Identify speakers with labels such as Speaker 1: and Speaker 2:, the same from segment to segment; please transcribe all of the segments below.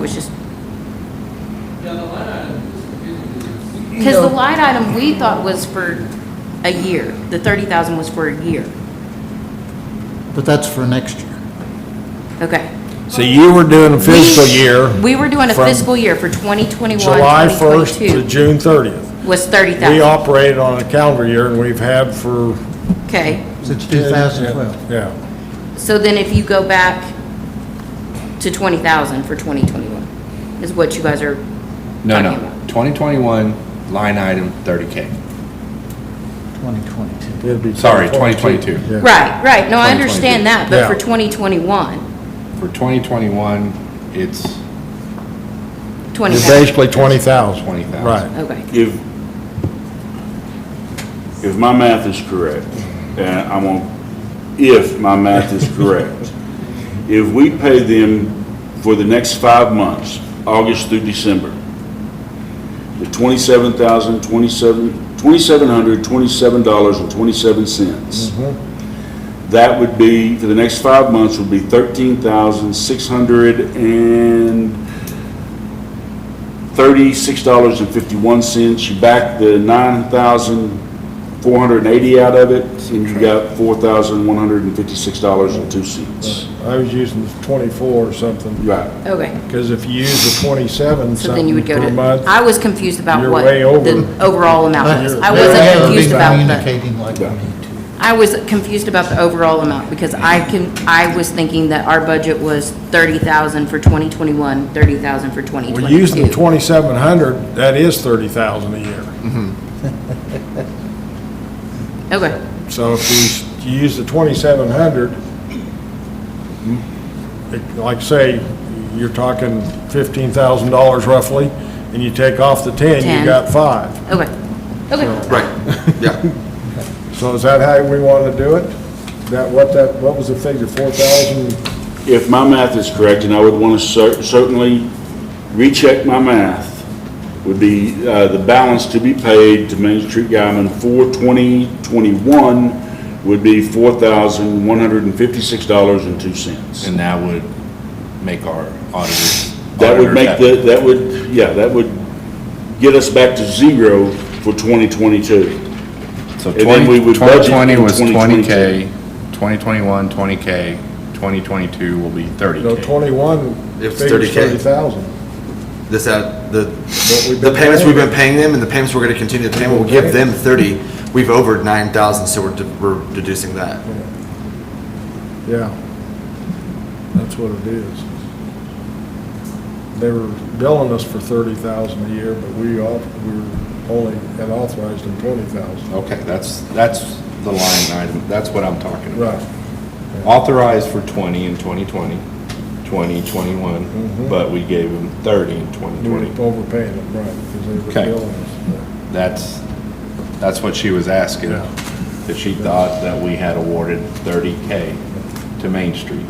Speaker 1: was just,
Speaker 2: Yeah, the line item is confusing because it's-
Speaker 1: because the line item we thought was for a year, the thirty thousand was for a year.
Speaker 3: But that's for next year.
Speaker 1: Okay.
Speaker 4: So you were doing a fiscal
Speaker 1: We-
Speaker 4: year,
Speaker 1: We were doing a
Speaker 4: from
Speaker 1: fiscal year for 2021,
Speaker 4: July 1st to
Speaker 1: 2022,
Speaker 4: June 30th.
Speaker 1: was
Speaker 4: We
Speaker 1: 30,000.
Speaker 4: operated on a calendar year and we've had for.
Speaker 1: Okay,
Speaker 3: Since 2012.
Speaker 4: Yeah,
Speaker 1: so then if you go back to 20,000 for 2021, is what you guys are
Speaker 5: No,
Speaker 1: talking
Speaker 5: no.
Speaker 1: about?
Speaker 5: 2021, line item 30K.
Speaker 3: 2022.
Speaker 4: yeah.
Speaker 5: Sorry, 2022.
Speaker 4: Yeah.
Speaker 1: Right, right, no, I understand that, but for
Speaker 4: Yeah.
Speaker 1: 2021,
Speaker 5: For 2021, it's
Speaker 1: 20,000.
Speaker 4: It's basically 20,000.
Speaker 5: 20,000.
Speaker 4: Right.
Speaker 1: Okay,
Speaker 6: If, if my math is correct, and I'm on, if my math is correct, if we pay them for the next five months, August through December, the twenty-seven thousand, twenty-seven, twenty-seven hundred, twenty-seven dollars and twenty-seven cents, that would be, for the next five months, would be thirteen thousand, six hundred and thirty-six dollars and fifty-one cents. You back the nine thousand four hundred and eighty out of it, and you got four thousand one hundred and fifty-six dollars and two cents.
Speaker 4: I was using 24 or something,
Speaker 6: Right.
Speaker 1: okay,
Speaker 4: because if you use the 27
Speaker 1: so then you
Speaker 4: something
Speaker 1: would go
Speaker 4: per
Speaker 1: to,
Speaker 4: month.
Speaker 1: I was confused about
Speaker 4: you're
Speaker 1: what
Speaker 4: way over.
Speaker 1: the overall
Speaker 3: Uh,
Speaker 1: amount was. I
Speaker 3: They
Speaker 1: wasn't
Speaker 3: haven't
Speaker 1: confused
Speaker 3: been
Speaker 1: about the.
Speaker 3: Communicating like we need to.
Speaker 1: I was confused about the overall amount, because I can, I was thinking that our budget was thirty thousand for twenty twenty-one, thirty thousand for twenty
Speaker 4: Well, using the
Speaker 1: twenty-two.
Speaker 4: 2,700, that is 30,000 a year.
Speaker 1: Okay,
Speaker 4: So if you s- you use the 2,700, it- like say, you're talking $15,000 roughly, and you take off the 10,
Speaker 1: Ten.
Speaker 4: you got five.
Speaker 1: okay, okay.
Speaker 7: Right, yeah.
Speaker 4: So is that how we want to do it? That, what that, what was the figure, 4,000?
Speaker 6: If my math is correct, and I would want to cer- certainly recheck my math, would be uh, the balance to be paid to Main Street Guyman for 2021 would be $4,156.02.
Speaker 5: And that would make our auditors.
Speaker 6: That would
Speaker 5: auditors
Speaker 6: make
Speaker 5: happy.
Speaker 6: the, that would, yeah, that would get us back to zero for 2022.
Speaker 5: So
Speaker 6: and then we
Speaker 5: 20
Speaker 6: would budget
Speaker 5: 2020
Speaker 6: in
Speaker 5: was
Speaker 6: 2022.
Speaker 5: 20K, 2021, 20K, 2022 will be
Speaker 4: No,
Speaker 5: 30K.
Speaker 4: 21
Speaker 7: It's
Speaker 4: figures
Speaker 7: 30K.
Speaker 4: 30,000.
Speaker 7: This, uh, the,
Speaker 4: we've
Speaker 7: the
Speaker 4: been
Speaker 7: payments
Speaker 4: paying.
Speaker 7: we've been paying them and the payments we're gonna continue to pay, we'll give them thirty. We've over nine thousand, so we're, de- we're deducing that.
Speaker 4: Yeah. That's what it is. They were billing us for 30,000 a year, but we all, we were only had authorized them 20,000.
Speaker 5: Okay, that's, that's the line item, that's what I'm talking about.
Speaker 4: Right,
Speaker 5: authorized for 20 in 2020, 20,
Speaker 4: Mm-hmm.
Speaker 5: 21, but we gave them 30 in
Speaker 4: we were
Speaker 5: 2020.
Speaker 4: overpaying them, right, because they were
Speaker 5: Okay.
Speaker 4: billing us.
Speaker 5: That's, that's what she was asking,
Speaker 4: Yeah.
Speaker 5: that she thought that we had awarded 30K to Main Street.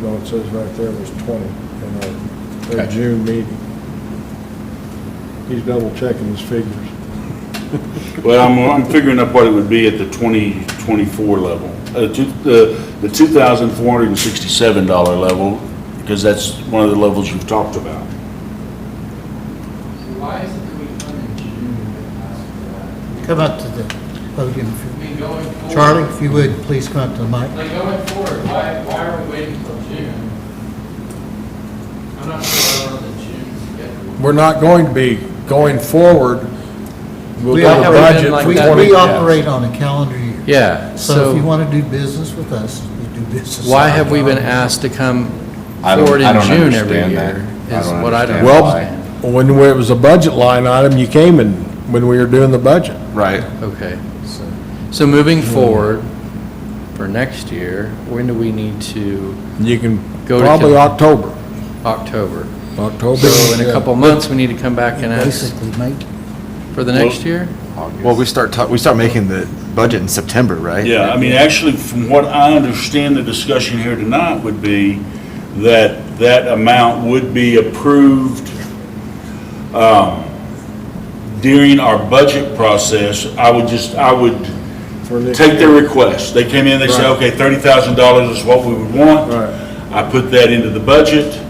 Speaker 4: No, it says right there was 20 in our, their
Speaker 5: Okay.
Speaker 4: June meeting. He's double checking his figures.
Speaker 6: Well, I'm, I'm figuring up what it would be at the 2024 level, uh, two- the the $2,467 level, because that's one of the levels you've talked about.
Speaker 2: so why is it that we funded June and asked for that?
Speaker 3: Come up to the podium. if
Speaker 2: I
Speaker 3: you-
Speaker 2: mean, going forward.
Speaker 3: Charlie, if you would, please come up to the mic.
Speaker 2: Like going forward, why, why are we waiting till June? I'm not sure I'm on the June schedule.
Speaker 4: We're not going to be going forward. We'll
Speaker 3: We
Speaker 4: do a
Speaker 3: operate-
Speaker 4: budget
Speaker 3: We,
Speaker 4: for
Speaker 2: that.
Speaker 3: we
Speaker 4: 20.
Speaker 3: operate on a calendar year.
Speaker 8: Yeah,
Speaker 3: So if you
Speaker 8: so
Speaker 3: want to do business with us, you do business.
Speaker 8: why
Speaker 3: with
Speaker 8: have we been
Speaker 3: us.
Speaker 8: asked to come
Speaker 5: I don't-
Speaker 8: forward
Speaker 5: I
Speaker 8: in
Speaker 5: don't
Speaker 8: June every
Speaker 5: understand
Speaker 8: year?
Speaker 5: that. I
Speaker 8: Is
Speaker 5: don't
Speaker 8: what I don't
Speaker 5: understand
Speaker 4: Well,
Speaker 8: understand.
Speaker 4: when it was a budget line item, you came in, when we were doing the budget.
Speaker 7: Right.
Speaker 8: Okay, so, so moving forward for next year, when do we need to,
Speaker 4: You can,
Speaker 8: Go to
Speaker 4: probably
Speaker 8: Kim.
Speaker 4: October,
Speaker 8: October?
Speaker 4: October.
Speaker 8: So in a
Speaker 4: yeah.
Speaker 8: couple months, we need to come back and ask
Speaker 3: Basically, make,
Speaker 8: for the next year?
Speaker 7: Well, we start, ta- we start making the budget in September, right?
Speaker 6: Yeah, I mean, actually, from what I understand, the discussion here tonight would be that that amount would be approved um, during our budget process. I would just, I would
Speaker 4: For next
Speaker 6: take their request. They came in, they said, okay,
Speaker 4: Right.
Speaker 6: $30,000 is what we would want.
Speaker 4: Right.
Speaker 6: I put that into the budget.